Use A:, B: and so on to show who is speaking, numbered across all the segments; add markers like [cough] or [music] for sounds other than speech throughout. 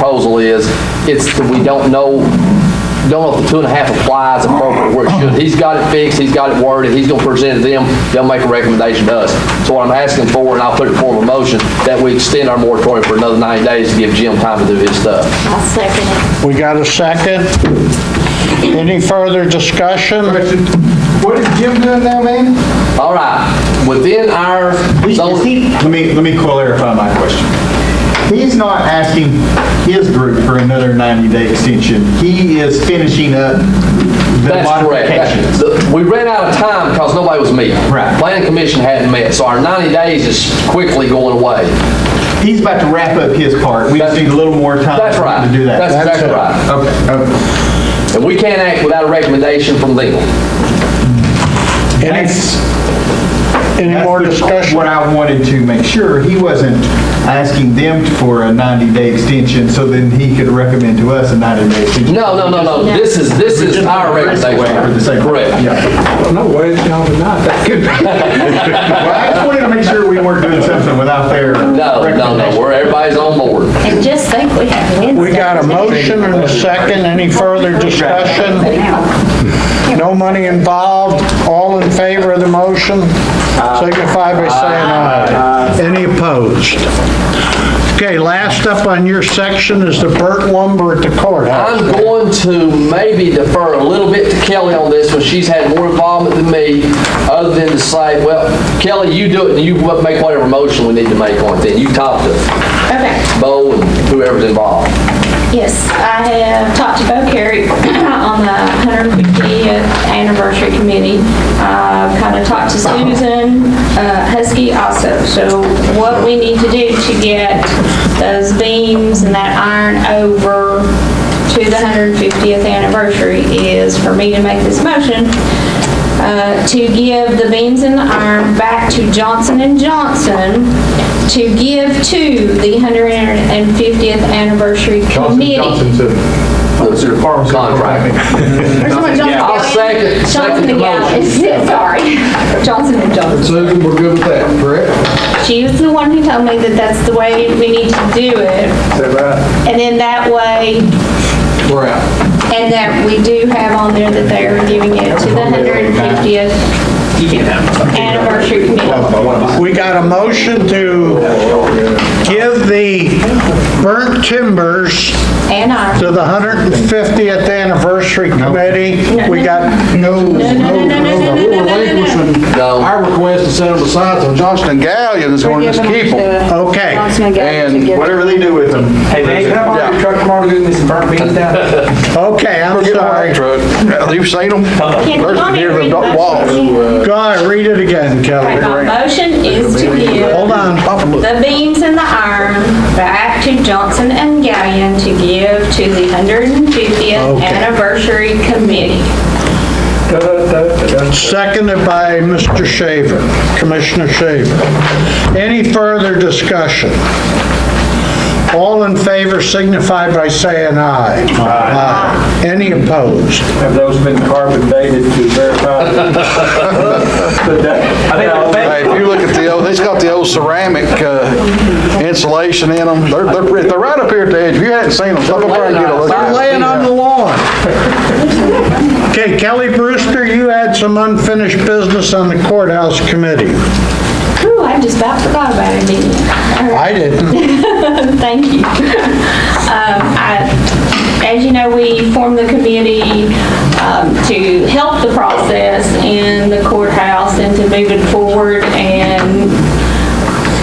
A: proposal is, it's, that we don't know, don't know if the two and a half applies appropriate where it should. He's got it fixed, he's got it worded, he's gonna present it to them, they'll make a recommendation to us. So what I'm asking for, and I'll put it in form of a motion, that we extend our moratorium for another 90 days to give Jim time to do his stuff.
B: I'll second it.
C: We got a second? Any further discussion?
D: Question, what is Jim doing now, man?
A: All right, within our zone.
D: Let me, let me clarify my question. He's not asking his group for another 90-day extension. He is finishing up the
A: That's correct.
D: modifications.
A: The- We ran out of time because nobody was meeting.
D: Right.
A: Planning Commission hadn't met, so our 90 days is quickly going away.
D: He's about to wrap up his part. We just
A: That's-
D: need a little more time
A: That's
D: for
A: right.
D: him to do that.
A: That's exactly
C: it.
A: right.
D: Okay, okay.
A: And we can't act without a recommendation from legal.
C: Any,
D: That's-
C: any
D: that's
C: more
D: the- What
C: discussion?
D: I wanted to make sure, he wasn't asking them for a 90-day extension so then he could recommend to us a 90-day extension.
A: No, no, no, no, this is, this is our
D: For the sake
A: recommendation.
D: of-
A: Correct.
D: Yeah.
E: No way, no, not that good.
D: Well, I just wanted to make sure we weren't doing something without their
A: No, no, no,
D: recommendation.
A: where everybody's on board.
B: And just think we have Wednesday.
C: We got a motion and a second, any further discussion? No money involved, all in favor of the motion? Signify by saying aye. Any opposed? Okay, last up on your section is the Burt Lumber at the courthouse.
A: I'm going to maybe defer a little bit to Kelly on this one. She's had more involvement than me, other than to say, well, Kelly, you do it, and you make whatever motion we need to make on it, then you talk to
B: Okay.
A: Bo and whoever's involved.
B: Yes, I have talked to Bo Carey on the 150th uh, anniversary committee. I've kind of talked to Susan uh, Husky also. So what we need to do to get those beams and that iron over to the 150th anniversary is for me to make this motion uh, to give the beams and the iron back to Johnson and Johnson to give to the 150th anniversary committee.
D: Oh,
A: Contract.
B: Or someone, Johnson
A: I'll
B: Gallion.
A: second- second
B: Johnson
A: the
B: and Gallion, [laughs] sorry. Johnson and Johnson.
E: Susan, we're good with that, correct?
B: She was the one who told me that that's the way we need to do it.
E: Is that right?
B: And then that way,
E: We're out.
B: and that we do have on there that they are giving it to the 150th anniversary committee.
C: We got a motion to give the burnt timbers
B: And I.
C: to the 150th Anniversary Committee. We got,
E: No,
B: no, no, no, no, no, no, no, no, no.
E: We're relinquishing
A: No.
E: our request to set them aside, so Johnston and Gallion is going to keep them.
C: okay.
E: And
D: Whatever they do with them.
F: Hey, man, can I borrow your
E: Yeah.
F: truck tomorrow to go get some burnt beans down?
C: Okay, I'm
E: Get on
C: sorry.
E: that truck. You've seen them?
B: Can-
E: There's
B: want me to
E: near the
B: read my
E: wall.
B: motion?
C: Go ahead, read it again,
B: Right,
C: Kelly.
B: My motion is to give.
C: Hold on.
B: The beams and the iron back to Johnson and Gallion to give to the 150th
C: Okay.
B: Anniversary Committee.
C: Seconded by Mr. Shaver, Commissioner Shaver. Any further discussion? All in favor signify by saying aye. Aye. Any opposed?
G: Have those been carbon dated to verify? I
E: Hey, if you look at the old, it's got the old ceramic uh, insulation in them. They're, they're pretty- they're right up here at the edge. If you hadn't seen them, stop up there and get a look
C: They're
E: at
C: laying
E: them.
C: on the lawn. [laughs] Okay, Kelly Brewster, you had some unfinished business on the courthouse committee.
B: Ooh, I just about forgot about it, didn't I?
C: I didn't.
B: Thank you. [laughs] Um, I- As you know, we formed the committee um, to help the process in the courthouse and to move it forward and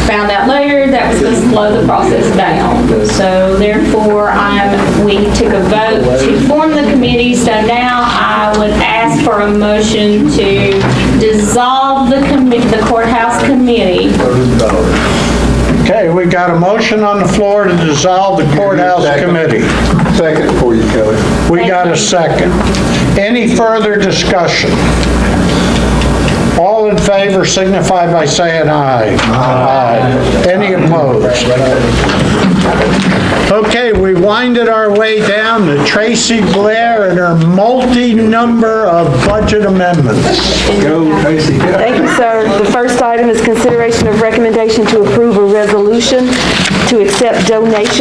B: found out later that was going to slow the process down. So therefore, I'm, we took a vote to form the committee, so now I would ask for a motion to dissolve the commi- the courthouse committee
C: Okay, we got a motion on the floor to dissolve the courthouse committee.
E: Second for you, Kelly.
C: We got a second. Any further discussion? All in favor signify by saying aye. Aye. Any opposed? Okay, we winded our way down to Tracy Blair and her multi-number of budget amendments.
E: Go, Tracy.
H: Thank you, sir. The first item is consideration of recommendation to approve a resolution to accept donations